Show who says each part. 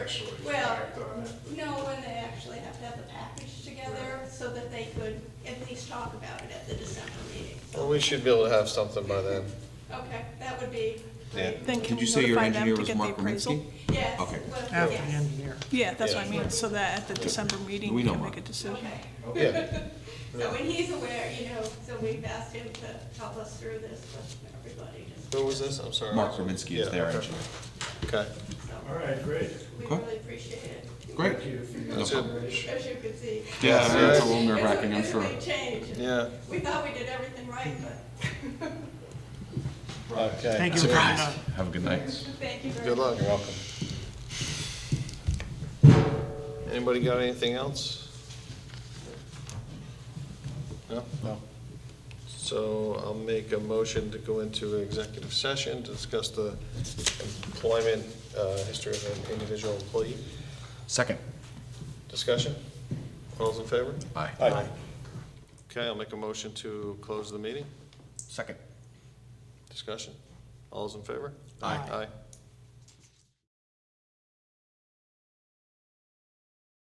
Speaker 1: actually
Speaker 2: Well,
Speaker 1: act on it. but-
Speaker 2: No, when they actually have to have the package together so that they could at least talk about it at the December meeting.
Speaker 3: Well, we should be able to have something by then.
Speaker 2: Okay, that would be
Speaker 4: Yeah.
Speaker 2: great.
Speaker 5: Then can we
Speaker 4: Did you say your
Speaker 5: notify them
Speaker 4: engineer
Speaker 5: to
Speaker 4: was
Speaker 5: get the
Speaker 4: Mark
Speaker 5: appraisal?
Speaker 4: Rominsky?
Speaker 2: Yes.
Speaker 4: Okay.
Speaker 2: well,
Speaker 6: After the
Speaker 2: yes.
Speaker 6: engineer.
Speaker 5: Yeah, that's what I
Speaker 2: Yeah.
Speaker 5: mean, so that at the December meeting,
Speaker 4: We
Speaker 5: we
Speaker 4: know
Speaker 5: can
Speaker 4: Mark.
Speaker 5: make a decision.
Speaker 2: Okay.
Speaker 3: Yeah,
Speaker 2: So, and he's aware, you know, so we've asked him to help us through this with everybody, just,
Speaker 3: who was this? I'm sorry.
Speaker 4: Mark Rominsky is
Speaker 3: Yeah,
Speaker 4: their
Speaker 3: okay.
Speaker 4: engineer.
Speaker 3: Okay,
Speaker 2: so,
Speaker 1: All right, great.
Speaker 2: we
Speaker 4: Okay.
Speaker 2: really appreciate it.
Speaker 4: Great.
Speaker 1: Thank you for your
Speaker 4: No problem.
Speaker 1: consideration.
Speaker 2: As you can see.
Speaker 4: Yeah, I know it's a
Speaker 2: It's
Speaker 4: little nerve wracking, I'm
Speaker 2: it's a
Speaker 4: sure.
Speaker 2: big change. and
Speaker 3: yeah,
Speaker 2: We thought we did everything right, but
Speaker 3: okay.
Speaker 6: Thank you for coming on.
Speaker 4: Have a good night.
Speaker 2: thank you very much.
Speaker 3: Good luck. You're welcome. Anybody got anything else? No? No. So I'll make a motion to go into executive session to discuss the employment, uh, history of an individual employee.
Speaker 4: Second.
Speaker 3: Discussion? All's in favor?
Speaker 4: Aye.
Speaker 3: Okay, I'll make a motion to close the meeting.
Speaker 4: Second.
Speaker 3: Discussion? All's in favor?
Speaker 4: Aye.
Speaker 3: Aye.